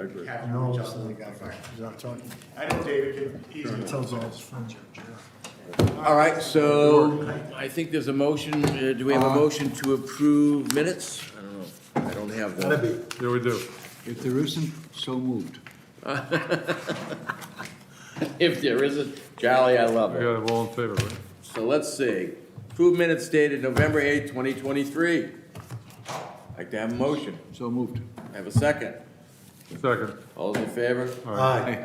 agree. have to No, reach it's out to not the a guy, fire. he's not talking. I know David can easily. Tells all his friends. All right, so I think there's a motion, uh, do we have Uh-huh. a motion to approve minutes? I don't know, I don't have them. There we do. If there isn't, so moved. If there isn't, jolly, I love We it. got it all in favor, right? So let's see, approve minutes dated November eighth, twenty twenty-three. Like to have a motion, So moved. have a second, Second. all those in favor? Aye.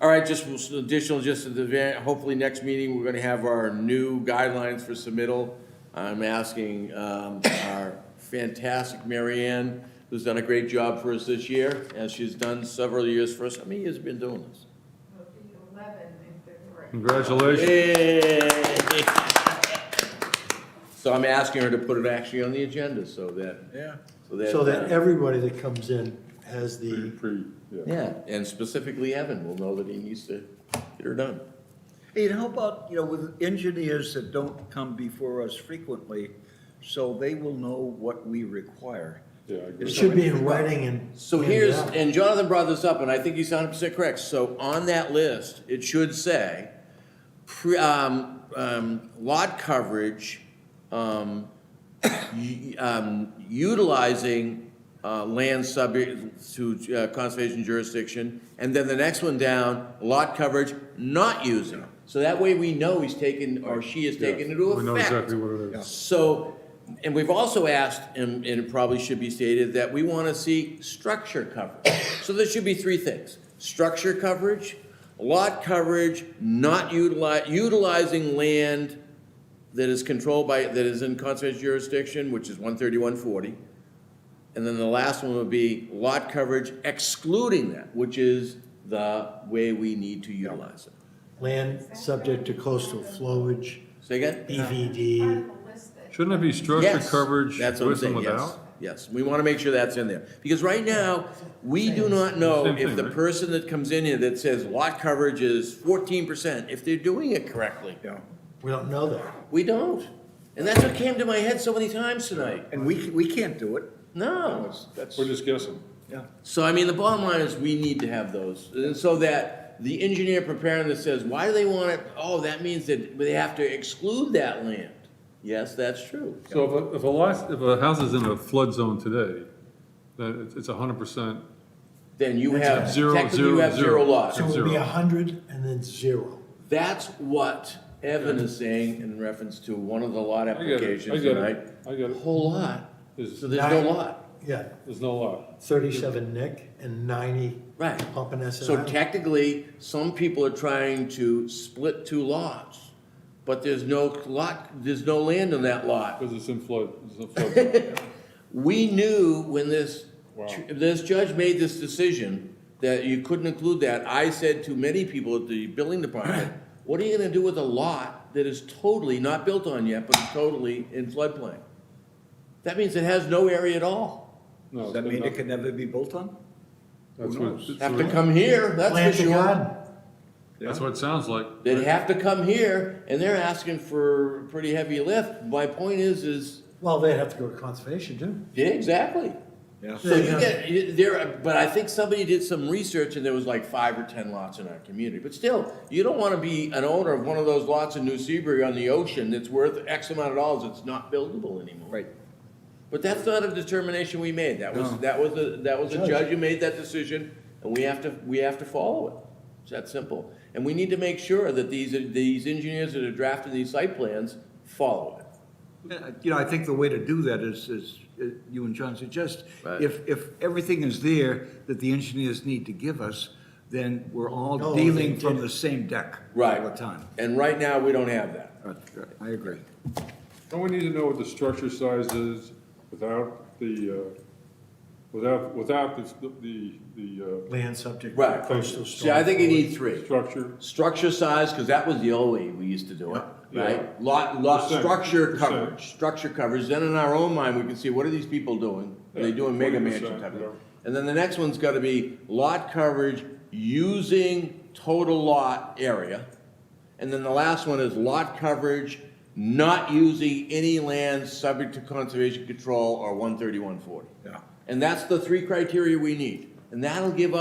All right, just we'll- additional, just at the, very- hopefully next meeting, we're gonna have our new guidelines for submittal. I'm asking, um, our fantastic Mary Ann, who's done a great job for us this year, as she's done several years for us. How many years have you been doing this? will be 11 in February. Congratulations. Yay! So I'm asking her to put it actually on the agenda, so that. Yeah. So that. So that uh, everybody that comes in has the, Pre- yeah. Yeah, and specifically Evan will know that he needs to get her done. Hey, and how about, you know, with engineers that don't come before us frequently, so they will know what we require. Yeah, I it agree. should be in writing and. uh, So handed here's, out. and Jonathan brought this up, and I think he's hundred percent correct, so on that list, it should say, pre, um, um, lot coverage, um, u- um, utilizing, uh, land subject to uh, conservation jurisdiction, and then the next one down, lot coverage not using. So that way we know he's taken, or she has taken into effect. We know exactly what it is. So, and we've also asked, and, and it probably should be stated, that we want to see structure coverage. So there should be three things, structure coverage, lot coverage, not utilize, utilizing land that is controlled by, that is in conservation jurisdiction, which is one thirty-one forty. And then the last one would be lot coverage excluding that, which is the way we need to utilize it. Land subject to coastal flowage, Say again? BVD. Have a list that- Shouldn't it be structure Yes, coverage that's what I'm with and saying, yes, without? yes. We want to make sure that's in there. Because right now, we do not know Same if thing, the right? person that comes in here that says lot coverage is fourteen percent, if they're doing it correctly. Yeah. We don't know that. We don't. And that's what came to my head so many times tonight. And we, we can't do it. No. We're just guessing. Yeah. So I mean, the bottom line is we need to have those. And so that the engineer preparing this says, why do they want it? Oh, that means that they have to exclude that land. Yes, that's true. So if a, if a lot, if a house is in a flood zone today, then it's, it's hundred percent, Then you have, Zero, technically you zero, have zero zero. lots. So it would be Zero. a hundred and then zero. That's what Evan is saying in reference to one of the lot get it, I applications get it, tonight. I get it. Whole lot, Is- so there's no Nine. lot, Yeah, there's no lot. thirty-seven Nick and ninety right. Pompanesett So Island. technically, some people are trying to split two lots, but there's no lot, there's no land on that lot. Because it's in flood, it's in flood. zone. We knew when this, Wow. this judge made this decision that you couldn't include that. I said to many people at the building department, what are you gonna do with a lot that is totally not built on yet, but is totally in floodplain? That means it has no area at all. No, Does it's that been mean it nothing. can never be built on? That's who what- knows? that's Have what- to come here, Plant that's the for sure. garden. That's what it sounds like. They'd have to come here, and they're asking for a pretty heavy lift. My point is, is, Well, they'd have to go to conservation too. yeah, exactly. Yeah. So you get, you- there, but I think somebody did some research and there was like five or ten lots in our community. But still, you don't wanna be an owner of one of those lots in New Seabury on the ocean that's worth X amount of dollars, it's not buildable anymore. Right. But that's not a determination we made, that was, No. that was, a that was a Judge. judge who made that decision, and we have to, we have to follow it. It's that simple. And we need to make sure that these, these engineers that are drafting these site plans follow it. Uh, You know, I think the way to do that is, is, uh, you and John suggest, Right. if, if everything is there that the engineers need to give us, then we're all No, dealing they from did. the same deck. Right. All the time. And right now, we don't have that. Uh, I agree. Don't we need to know what the structure size is without the, uh, without, without the, the, the, Land subject to Right. coastal See, I storm. think you need uh, three. structure? Structure size, because that was the old way we used to do it, Yeah. right? Lot, lot, Percent, structure percent. coverage, structure coverage, then in our own mind, we can see, what are these people doing? Are they Yeah, doing mega 20%, mansion type of yeah. thing? And then the next one's gotta be lot coverage using total lot area. And then the last one is lot coverage not using any land subject to conservation control or one thirty-one forty. Yeah. And that's the three criteria we need. and that'll give